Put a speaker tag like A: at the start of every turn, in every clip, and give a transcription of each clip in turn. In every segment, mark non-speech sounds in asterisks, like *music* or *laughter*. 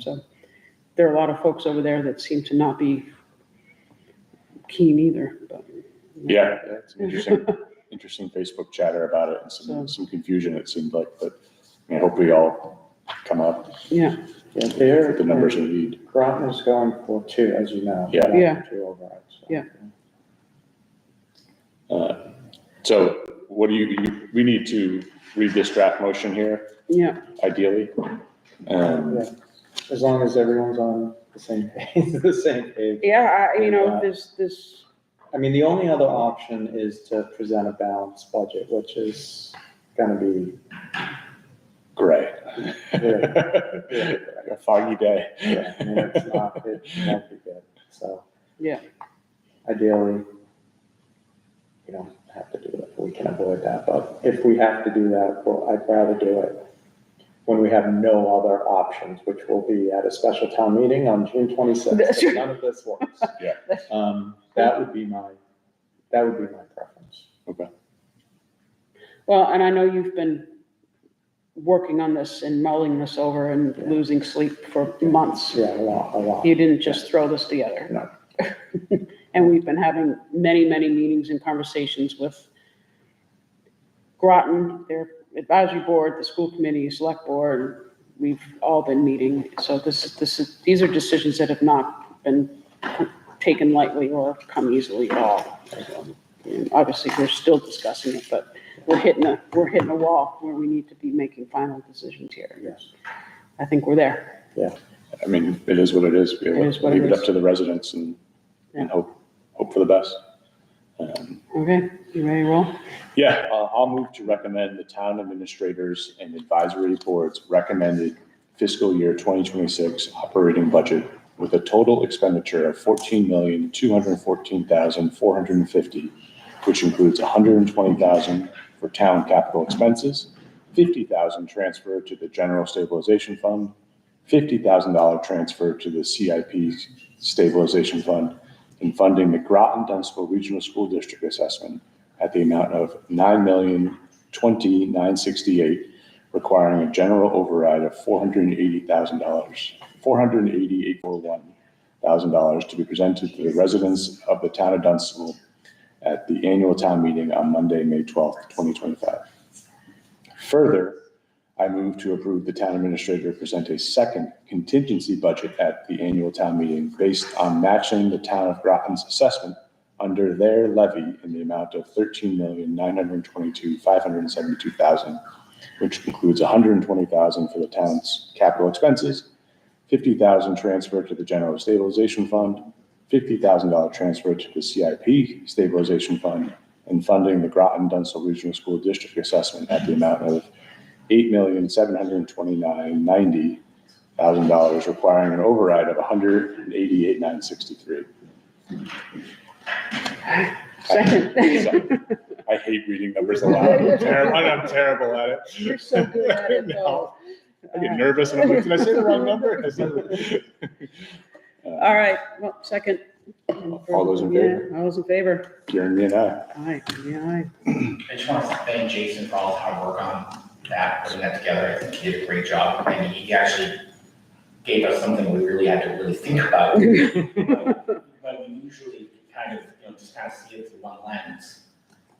A: So there are a lot of folks over there that seem to not be keen either, *laughs* but.
B: Yeah, it's an interesting, interesting Facebook chatter about it and
A: So-
B: some, some confusion it seemed like, but I mean, I hope we all come up
A: Yeah,
C: Yeah, there.
B: with the numbers we need.
C: Groton's going for two, as you know.
B: Yeah.
A: Yeah.
C: Two overrides. so.
A: Yeah.
B: Uh, So what do you, you- we need to read this draft motion here
A: yeah,
B: ideally. Um,
C: Yeah. As long as everyone's on the same page, *laughs* the same page.
A: yeah, I, you know, this, this,
C: I mean, the only other option is to present a balanced budget, which is gonna be,
B: Gray.
C: Yeah. Yeah.
B: *laughs* A foggy
C: yeah, I mean, it's not,
B: day.
C: it won't be good, so.
A: Yeah.
C: Ideally, we don't have to do it, we can avoid that, but if we have to do that, well, I'd rather do it when we have no other options, which will be at a special town meeting on June twenty-sixth,
A: That's right.
C: none of this works.
B: Yeah.
C: Um, that would be my, that would be my preference.
A: well, and I know you've been working on this and mulling this over and losing sleep for months.
C: Yeah, a lot, a lot.
A: You didn't just throw this together.
C: No.
A: *laughs* And we've been having many, many meetings and conversations with Groton, their advisory board, the school committee, select board. We've all been meeting. So this, is this is, these are decisions that have not been taken lightly or come easily at all. And obviously, we're still discussing it, but we're hitting a, we're hitting a wall where we need to be making final decisions here.
C: Yes.
A: I think we're there.
B: I mean, it is what it is. We
A: It is what it
B: leave it up
A: is.
B: to the residents and, and hope, hope for the best. Um,
A: Okay, you ready to roll?
B: Yeah, uh, I'll move to recommend the town administrators and advisory boards recommended fiscal year 2026 operating budget with a total expenditure of $14,214,450, which includes $120,000 for town capital expenses, $50,000 transfer to the general stabilization fund, $50,000 transfer to the CIP stabilization fund, and funding the Groton Dunstable Regional School District assessment at the amount of nine million twenty nine sixty eight, requiring a general override of four hundred and eighty thousand dollars, four hundred and eighty eight four one thousand dollars to be presented to the residents of the town of Dunstable at the annual town meeting on Monday, May twelfth, twenty twenty five. Further, I move to approve the town administrator present a second contingency budget at the annual town meeting based on matching the town of Groton's assessment under their levy in the amount of thirteen million, nine hundred and twenty-two, five hundred and seventy-two thousand, which includes hundred and twenty thousand for the town's capital expenses, fifty thousand transferred to the general stabilization fund, fifty thousand dollar transfer to the CIP stabilization fund, and funding the Groton Dunstall Regional School District assessment at the amount of eight million, seven hundred and twenty-nine, ninety thousand dollars, requiring an override of a hundred and eighty-eight, nine sixty-three. *laughs*
A: Second.
B: uh, I hate reading numbers *laughs* aloud. I'm terrible, I'm terrible at it.
A: You're so
B: *laughs*
A: good at it, though.
B: I get nervous and I'm like, did I say the wrong number? *laughs* I said the-
A: All right, well, second.
B: All those in favor?
A: Yeah, All those in favor?
B: Karen, me and I.
A: Aye, yeah, aye.
D: I just want to thank Jason for all his hard work on that, putting that together. I think he did a great job. And he actually gave us something we really had to really
A: *laughs*
D: think about. But we usually kind of, you know, just kind of see it through one lens.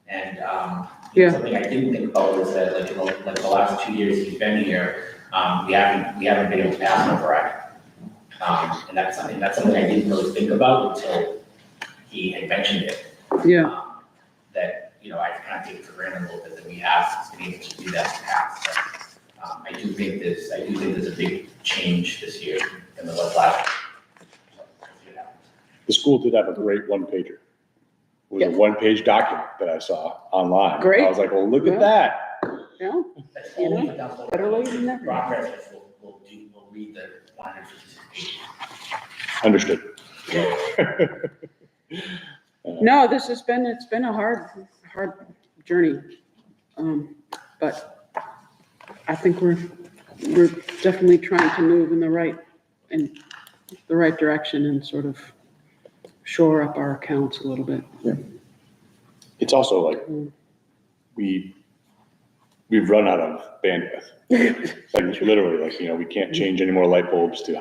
D: And, um, you know,
A: Yeah.
D: something I didn't think about was that like, in the- like the last two years he's been here, um, we haven't, we haven't been able to pass an override. Um, and that's something, that's something I didn't really think about until he had mentioned it
A: Yeah,
D: um, That, you know, I kind of take for granted a little bit that we have been able to do that in the past. But, um, I do think this, I do think there's a big change this year in the what's left.
B: The school did have a great one pager. It was a
A: Yeah.
B: one page document that I saw online.
A: Great.
B: I was like, well, look
A: Yeah.
B: at that.
A: yeah,
D: That's
A: You know,
D: only enough. of
A: better late than never.
D: Progress will, will do, will read the one hundred fifty-six pages.
B: Understood.
A: no, this has been, it's been a hard, hard journey. Um, but I think we're, we're definitely trying to move in the right, in the right direction and sort of shore up our accounts a little bit.
B: It's also like,
A: Mm.
B: we, we've run out of bandwidth. Like literally, like, you know, we can't change any more light bulbs to